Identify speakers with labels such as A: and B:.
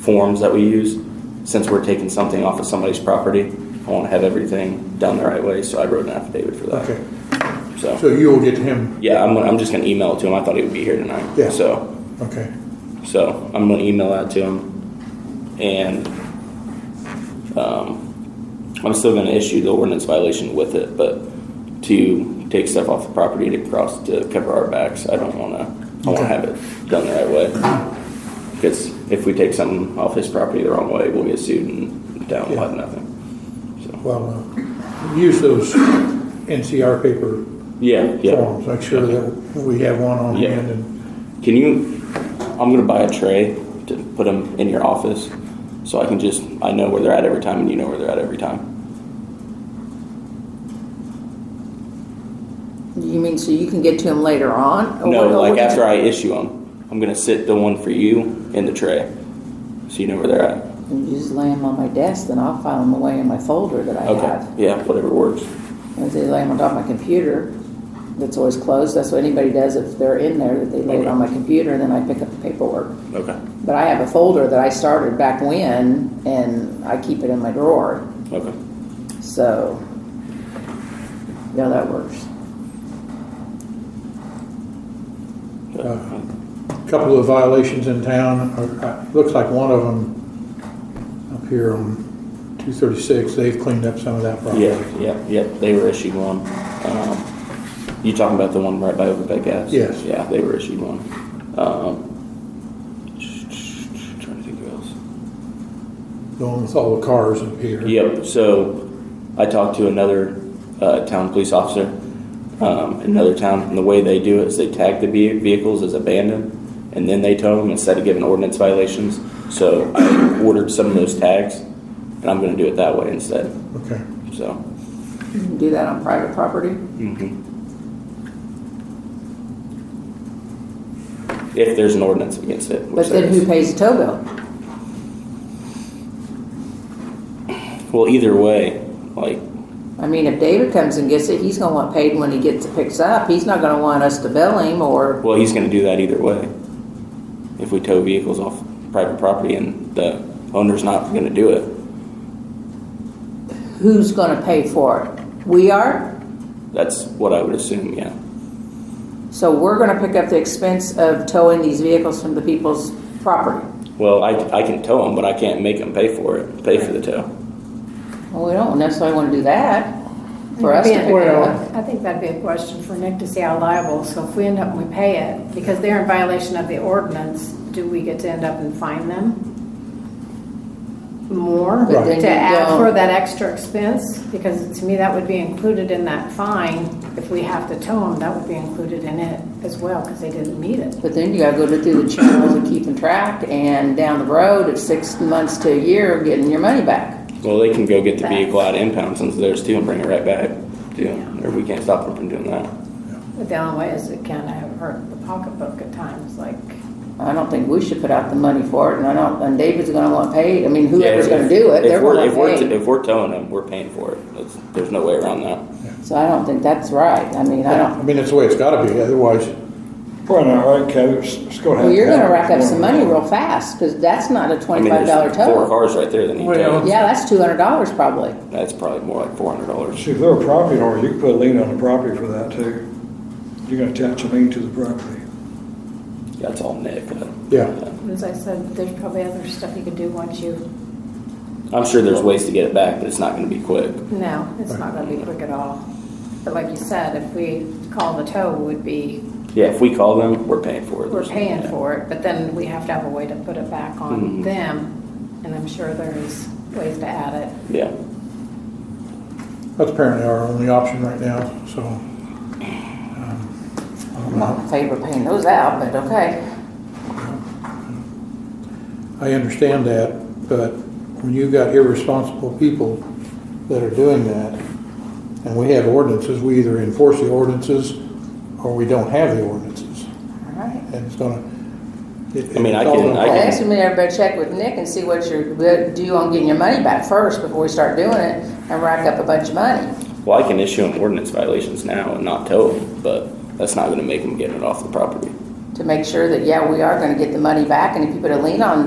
A: forms that we use. Since we're taking something off of somebody's property, I want to have everything done the right way, so I wrote an affidavit for that.
B: Okay, so
A: So,
B: you'll get him,
A: yeah, I'm, gonna- I'm just gonna email it to him. I thought he would be here tonight.
B: Yeah.
A: So,
B: okay.
A: so I'm gonna email that to him, and um, I'm still gonna issue the ordinance violation with it, but to take stuff off the property to cross to cover our backs, I don't wanna. I wanna
B: Okay.
A: have it done the right way. Because if we take something off his property the wrong way, we'll get sued and down
B: Yeah.
A: will have nothing. So
B: Well, uh, use those NCR paper
A: yeah, yeah.
B: forms, make sure that we have one on
A: Yeah.
B: hand and,
A: Can you? I'm gonna buy a tray to put them in your office, so I can just I know where they're at every time, and you know where they're at every time.
C: You mean so you can get to them later on? Oh, Or what-
A: no,
C: or
A: like
C: what-
A: after I issue them, I'm gonna sit the one for you in the tray, so you know where they're at.
C: You just lay them on my desk, then I'll file them away in my folder that I
A: Okay.
C: have.
A: Yeah, whatever works.
C: And If they lay them on top of my computer, that's always closed. That's what anybody does if they're in there, that they lay it
A: Okay.
C: on my computer, and then I pick up the paperwork.
A: Okay.
C: But I have a folder that I started back when, and I keep it in my drawer.
A: Okay.
C: So, yeah, that works.
B: uh, couple of violations in town, or, uh, looks like one of them up here on two thirty-six, they've cleaned up some of that problem.
A: Yeah, yeah, yeah. They were issued one. Um, you talking about the one right by Overbeck Gas?
B: Yes.
A: Yeah, they were issued one. Um, trying to think who else.
B: The one with all the cars up here.
A: Yep. So I talked to another uh, town police officer, um, in another town, and the way they do it is they tag the ve- vehicles as abandoned, and then they tow them instead of giving ordinance violations. So I ordered some of those tags, and I'm going to do it that way instead.
B: Okay,
A: So.
C: You can do that on private property. Mm-hmm.
A: If there's an ordinance against it. which
C: But then
A: there
C: who
A: is.
C: pays the tow bill?
A: Well, either way, like,
C: I mean, if David comes and gets it, he's gonna want paid when he gets, picks up. He's not gonna want us to bill him or,
A: well, he's gonna do that either way. If we tow vehicles off private property and the owner's not gonna do it,
C: who's gonna pay for it? We are,
A: that's what I would assume, yeah.
C: so we're gonna pick up the expense of towing these vehicles from the people's property.
A: Well, I, I can tow them, but I can't make them pay for it, pay for the tow.
C: Well, we don't necessarily wanna do that for us to pick it up.
D: I think that'd be a question for Nick to see how liable, so if we end up and we pay it, because they're in violation of the ordinance, do we get to end up and fine them? More
C: But then
D: to
C: you
D: add
C: don't-
D: for that extra expense, because to me, that would be included in that fine. If we have to tow them, that would be included in it as well, because they didn't meet it.
C: But then you gotta go to through the channels of keeping track and down the road of six months to a year of getting your money back.
A: Well, they can go get the vehicle out of impound since theirs too and bring it right back, too, or we can't stop them from doing that.
D: But the only way is it can have hurt the pocketbook at times, like,
C: I don't think we should put out the money for it and I don't, and David's gonna want paid. I mean,
A: Yeah,
C: whoever's
A: if-
C: gonna do it,
A: if
C: they're
A: we're-
C: gonna
A: if we're,
C: pay.
A: If we're towing them, we're paying for it. That's, there's no way around that.
C: So I don't think that's right. I mean, I
B: I
C: don't,
B: mean, that's the way it's gotta be, otherwise,
E: Well, all right, Coach, it's gonna
C: well,
E: have.
C: you're gonna rack up some money real fast, cause that's not a
A: I mean,
C: twenty-five
A: there's
C: dollar
A: Four
C: tow.
A: cars Uh-huh. right there that need
B: Well-
A: towing.
C: Yeah, that's two hundred dollars probably.
A: That's probably more like four hundred dollars.
E: See, if they're a property owner, you can put a lien on the property for that too. You're gonna attach a lien to the property.
A: That's all Nick. uh,
B: Yeah.
D: as I said, there's probably other stuff you could do once you
A: I'm sure there's ways to get it back, but it's not gonna be quick.
D: No, it's not gonna be quick at all. But like you said, if we call the tow, would be,
A: Yeah, if we call them, we're paying for it.
D: we're
A: There's-
D: paying
A: yeah.
D: for it, but then we have to have a way to put it back on
A: Mhm.
D: them. And I'm sure there's ways to add it.
A: Yeah.
B: that's apparently our only option right now, so. um, I don't
C: I'm not
B: know.
C: in favor of paying those out, but okay.
B: I understand that, but when you've got irresponsible people that are doing that, and we have ordinances, we either enforce the ordinances or we don't have the ordinances.
C: Alright.
B: And it's gonna. it-
A: I mean, I
B: it's all
A: can-
B: gonna
A: I
C: Well,
A: can-
C: Next, we better check with Nick and see what you're good- due on getting your money back first before we start doing it and rack up a bunch of money.
A: Well, I can issue them ordinance violations now and not tow them, but that's not gonna make them get it off the property.
C: To make sure that, yeah, we are gonna get the money back and if you put a lien on